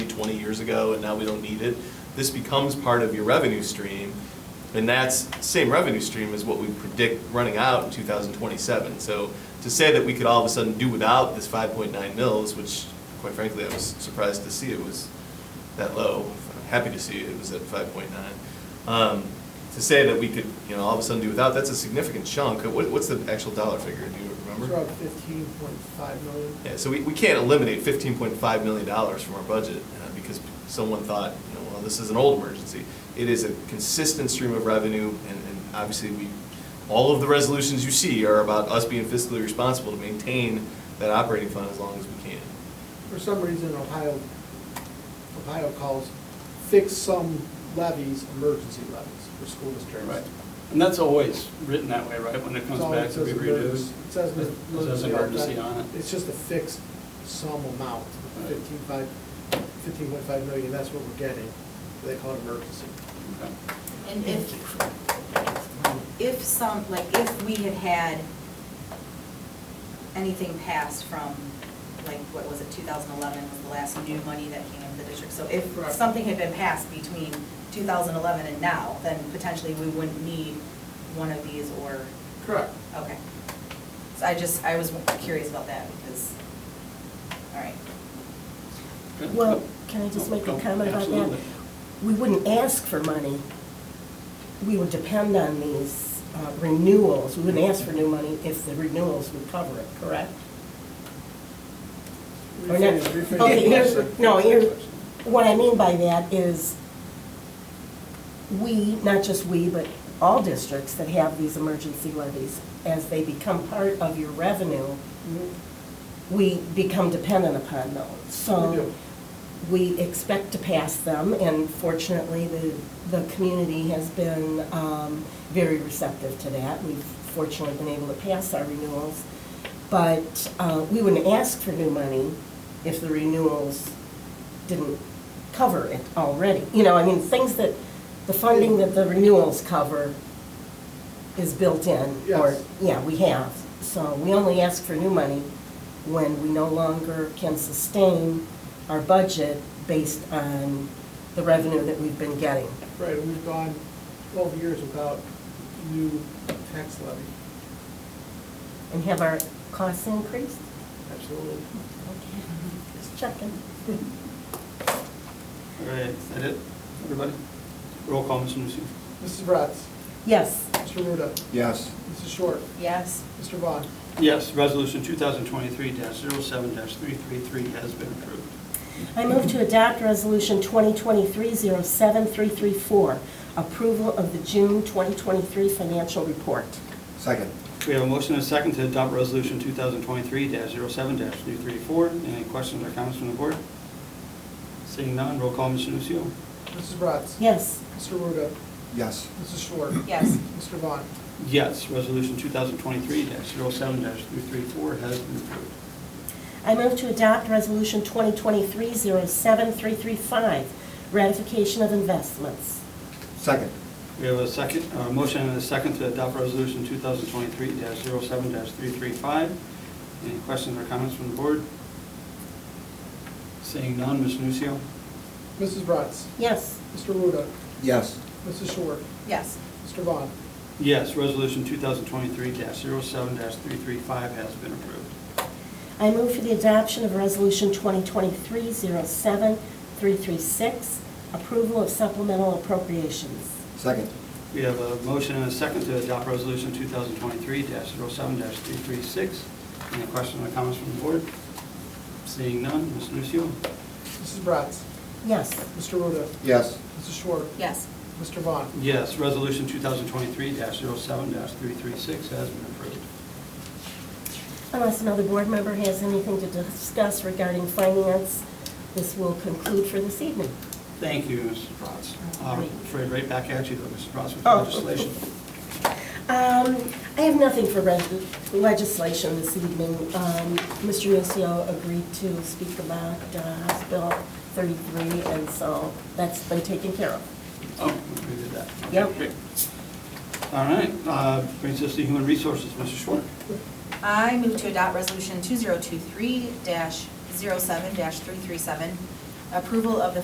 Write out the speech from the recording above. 20 years ago, and now we don't need it. This becomes part of your revenue stream, and that's, same revenue stream as what we predict running out in 2027. So to say that we could all of a sudden do without this 5.9 mils, which quite frankly, I was surprised to see it was that low. Happy to see it was at 5.9. Um, To say that we could, you know, all of a sudden do without, that's a significant chunk. What- What's the actual dollar figure? Do you remember? It's around fifteen point five million. Yeah, so we, we can't eliminate fifteen point five million dollars from our budget, uh, because someone thought, you know, well, this is an old emergency. It is a consistent stream of revenue, and, and obviously, we, all of the resolutions you see are about us being fiscally responsible to maintain that operating fund as long as we can. For some reason, Ohio, Ohio calls fix some levies, emergency levies for school districts. Right. And that's always written that way, right, when it comes It's all- back it to be says redo? emergency- It says It says emergency on it. It's just a fixed sum amount, Right. fifteen five, fifteen point five million, that's what we're getting. They call it emergency. Okay. And if, if some, like, if we had had anything passed from, like, what was it, 2011 was the last new money that came into the district. So if Correct. something had been passed between 2011 and now, then potentially we wouldn't need one of these or, Correct. okay. So I just, I was curious about that because, all right. Good. Well, can I just make Oh, a comment about that? absolutely. We wouldn't ask for money. We would depend on these uh, renewals. We wouldn't ask for new money if the renewals would cover it, correct? Or not? Rephrase- rephrase the Okay, here's- question. No, here's, what I mean by that is we, not just we, but all districts that have these emergency levies, as they become part of your revenue, Mhm. we become dependent upon those. We So do. we expect to pass them, and fortunately, the, the community has been um, very receptive to that. We've fortunately been able to pass our renewals, but uh, we wouldn't ask for new money if the renewals didn't cover it already. You know, I mean, things that, the funding that the renewals cover is built in, or, Yes. yeah, we have. So we only ask for new money when we no longer can sustain our budget based on the revenue that we've been getting. Right, and we've gone twelve years without new tax levy. And have our costs increased? Absolutely. Just checking. All right, is that it, everybody? Roll call, Mr. Nusio. Mrs. Bratz? Yes. Mr. Ruda? Yes. Mrs. Short? Yes. Mr. Vaughn? Yes, resolution 2023-07-333 has been approved. I move to adopt Resolution 2023-07334, approval of the June 2023 financial report. Second. We have a motion and a second to adopt resolution 2023-07-334. Any questions or comments from the board? Seeing none, roll call, Mr. Nusio. Mrs. Bratz? Yes. Mr. Ruda? Yes. Mrs. Short? Yes. Mr. Vaughn? Yes, resolution 2023-07-334 has been approved. I move to adopt Resolution 2023-07335, ratification of investments. Second. We have a second, uh motion and a second to adopt resolution 2023-07-335. Any questions or comments from the board? Seeing none, Ms. Nusio. Mrs. Bratz? Yes. Mr. Ruda? Yes. Mrs. Short? Yes. Mr. Vaughn? Yes, resolution 2023-07-335 has been approved. I move for the adoption of Resolution 2023-07336, approval of supplemental appropriations. Second. We have a motion and a second to adopt resolution 2023-07-336. Any questions or comments from the board? Seeing none, Ms. Nusio. Mrs. Bratz? Yes. Mr. Ruda? Yes. Mrs. Short? Yes. Mr. Vaughn? Yes, resolution 2023-07-336 has been approved. Unless another board member has anything to discuss regarding finance, this will conclude for this evening. Thank you, Mrs. Bratz. I'm afraid right back at you, though, Mrs. Bratz, with Oh. legislation. Um, I have nothing for res- legislation this evening. Um, Mr. Nucio agreed to speak about uh, House Bill 33, and so that's been taken care of. Oh, we did that. Okay, Yep. great. All right, uh, brings us to human resources, Mr. Schwartz. I move to adopt Resolution 2023-07-337, Approval of the